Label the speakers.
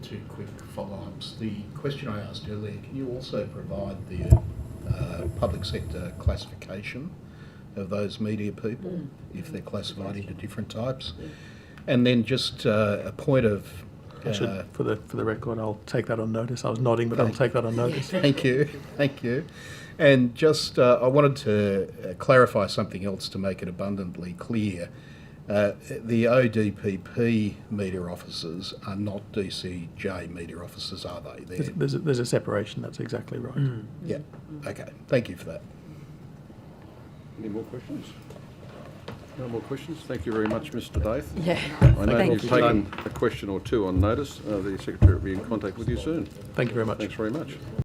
Speaker 1: two quick follow-ups. The question I asked earlier, can you also provide the uh, public sector classification of those media people,
Speaker 2: Mm.
Speaker 1: if they're classified into different types?
Speaker 2: Yeah.
Speaker 1: And then just uh, a point of...
Speaker 3: I
Speaker 1: uh,
Speaker 3: should, for the, for the record, I'll take that on notice. I was nodding, but I'll
Speaker 1: Thank-
Speaker 3: take that on notice.
Speaker 1: Thank you, thank you. And just, uh, I wanted to uh, clarify something else to make it abundantly clear. Uh, the ODPP media officers are not DCJ media officers, are they?
Speaker 3: There's,
Speaker 1: They're,
Speaker 3: there's, a, there's a separation, that's exactly right.
Speaker 1: yeah, okay, thank you for that.
Speaker 4: Any more questions? No more questions? Thank you very much, Mr. Daith.
Speaker 2: Yeah,
Speaker 4: I know
Speaker 2: thank
Speaker 4: you've
Speaker 2: you.
Speaker 4: taken a question or two on notice. Uh, The secretary will be in contact with you soon.
Speaker 3: Thank you very much.
Speaker 4: Thanks very much.